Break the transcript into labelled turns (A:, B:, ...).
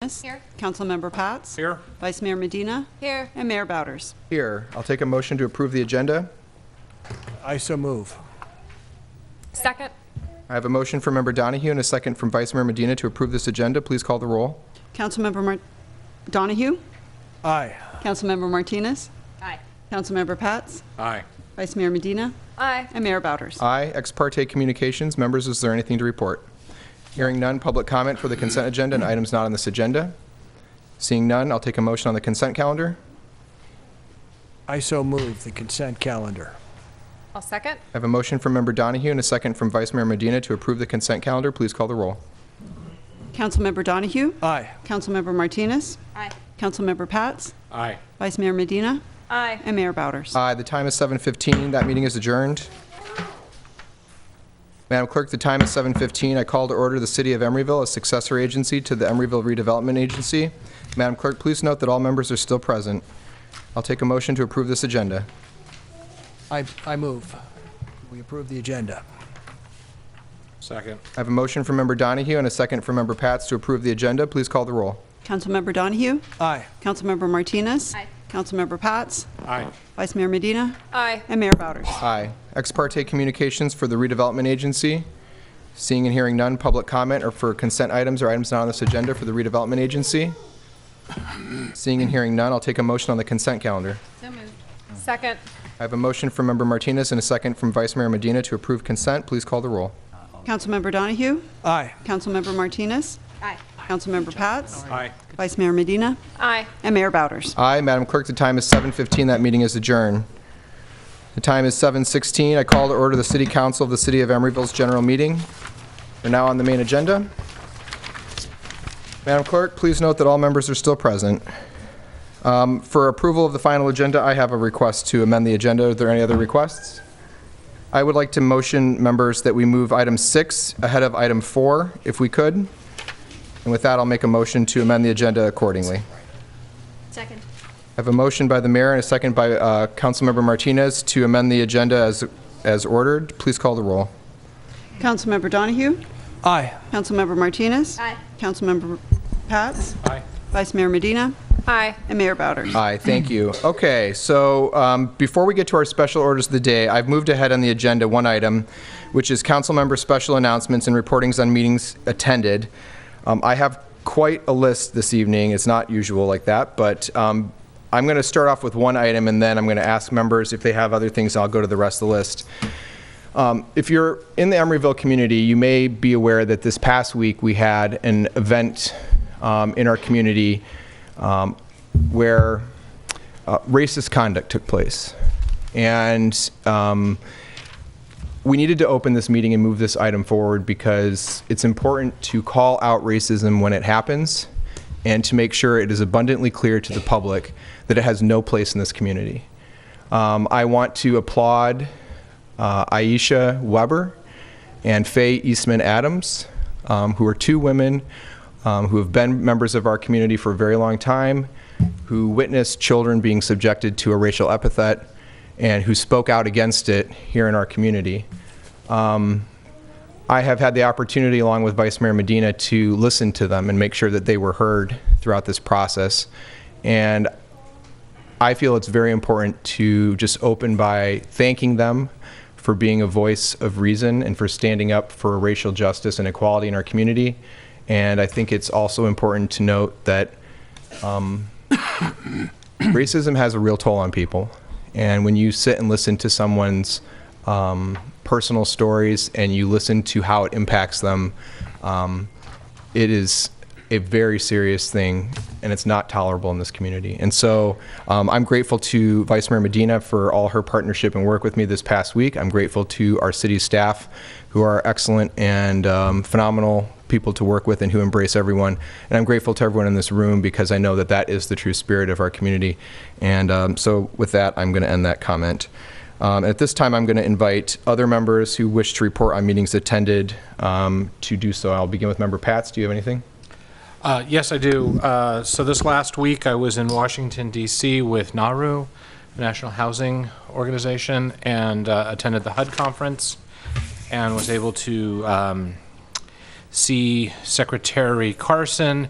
A: Thomas.
B: Here.
A: Councilmember Pats.
C: Here.
A: Vice Mayor Medina.
B: Here.
A: And Mayor Bowders.
D: Here, I'll take a motion to approve the agenda.
E: I so move.
B: Second.
D: I have a motion from Member Donahue and a second from Vice Mayor Medina to approve this agenda. Please call the roll.
A: Councilmember Mar- Donahue.
E: Aye.
A: Councilmember Martinez.
B: Aye.
A: Councilmember Pats.
C: Aye.
A: Vice Mayor Medina.
B: Aye.
A: And Mayor Bowders.
D: Aye, ex parte communications. Members, is there anything to report? Hearing none, public comment for the consent agenda and items not on this agenda. Seeing none, I'll take a motion on the consent calendar.
E: I so move the consent calendar.
B: I'll second.
D: I have a motion from Member Donahue and a second from Vice Mayor Medina to approve the consent calendar. Please call the roll.
A: Councilmember Donahue.
E: Aye.
A: Councilmember Martinez.
B: Aye.
A: Councilmember Pats.
C: Aye.
A: Vice Mayor Medina.
B: Aye.
A: And Mayor Bowders.
D: Aye, Uh, the time is 7:15. That meeting is adjourned. Madam Clerk, the time is 7:15. I call to order the City of Emeryville, a successor agency to the Emeryville Redevelopment Agency. Madam Clerk, please note that all members are still present. I'll take a motion to approve this agenda.
E: I, I move. We approve the agenda.
C: Second.
D: I have a motion from Member Donahue and a second from Member Pats to approve the agenda. Please call the roll.
A: Councilmember Donahue.
E: Aye.
A: Councilmember Martinez.
B: Aye.
A: Councilmember Pats.
C: Aye.
A: Vice Mayor Medina.
B: Aye.
A: And Mayor Bowders.
D: Aye. Ex parte communications for the redevelopment agency. Seeing and hearing none, public comment or for consent items or items not on this agenda for the redevelopment agency. Seeing and hearing none, I'll take a motion on the consent calendar.
B: So moved. Second.
D: I have a motion from Member Martinez and a second from Vice Mayor Medina to approve consent. Please call the roll.
A: Councilmember Donahue.
E: Aye.
A: Councilmember Martinez.
B: Aye.
A: Councilmember Pats.
C: Aye.
A: Vice Mayor Medina.
B: Aye.
A: And Mayor Bowders.
D: Aye, Madam Clerk, the time is 7:15. That meeting is adjourned. The time is 7:16. I call to order the City Council of the City of Emeryville's general meeting. We're now on the main agenda. Madam Clerk, please note that all members are still present. Um, For approval of the final agenda, I have a request to amend the agenda. Are there any other requests? I would like to motion, members, that we move item six ahead of item four, if we could. And with that, I'll make a motion to amend the agenda accordingly.
B: Second.
D: I have a motion by the mayor and a second by uh, Councilmember Martinez to amend the agenda as as ordered. Please call the roll.
A: Councilmember Donahue.
E: Aye.
A: Councilmember Martinez.
B: Aye.
A: Councilmember Pats.
C: Aye.
A: Vice Mayor Medina.
B: Aye.
A: And Mayor Bowders.
D: Aye, thank you. Okay, so um, before we get to our special orders of the day, I've moved ahead on the agenda one item, which is council member special announcements and reportings on meetings attended. Um, I have quite a list this evening. It's not usual like that, but um, I'm going to start off with one item, and then I'm going to ask members if they have other things, and I'll go to the rest of the list. Um, If you're in the Emeryville community, you may be aware that this past week, we had an event um, in our community um, where uh, racist conduct took place. And um, we needed to open this meeting and move this item forward because it's important to call out racism when it happens and to make sure it is abundantly clear to the public that it has no place in this community. Um, I want to applaud uh, Aisha Weber and Faye Eastman Adams, um, who are two women um, who have been members of our community for a very long time, who witnessed children being subjected to a racial epithet, and who spoke out against it here in our community. Um, I have had the opportunity, along with Vice Mayor Medina, to listen to them and make sure that they were heard throughout this process. And I feel it's very important to just open by thanking them for being a voice of reason and for standing up for racial justice and equality in our community. And I think it's also important to note that racism has a real toll on people. And when you sit and listen to someone's um, personal stories and you listen to how it impacts them, um, it is a very serious thing and it's not tolerable in this community. And so um, I'm grateful to Vice Mayor Medina for all her partnership and work with me this past week. I'm grateful to our city staff who are excellent and um, phenomenal people to work with and who embrace everyone. And I'm grateful to everyone in this room because I know that that is the true spirit of our community. And um, so, with that, I'm going to end that comment. Um, at this time, I'm going to invite other members who wish to report on meetings attended um, to do so. I'll begin with Member Pats. Do you have anything?
C: Uh, Yes, I do. Uh, So this last week, I was in Washington DC with NARU, the National Housing Organization, and uh, attended the HUD conference, and was able to um, see Secretary Carson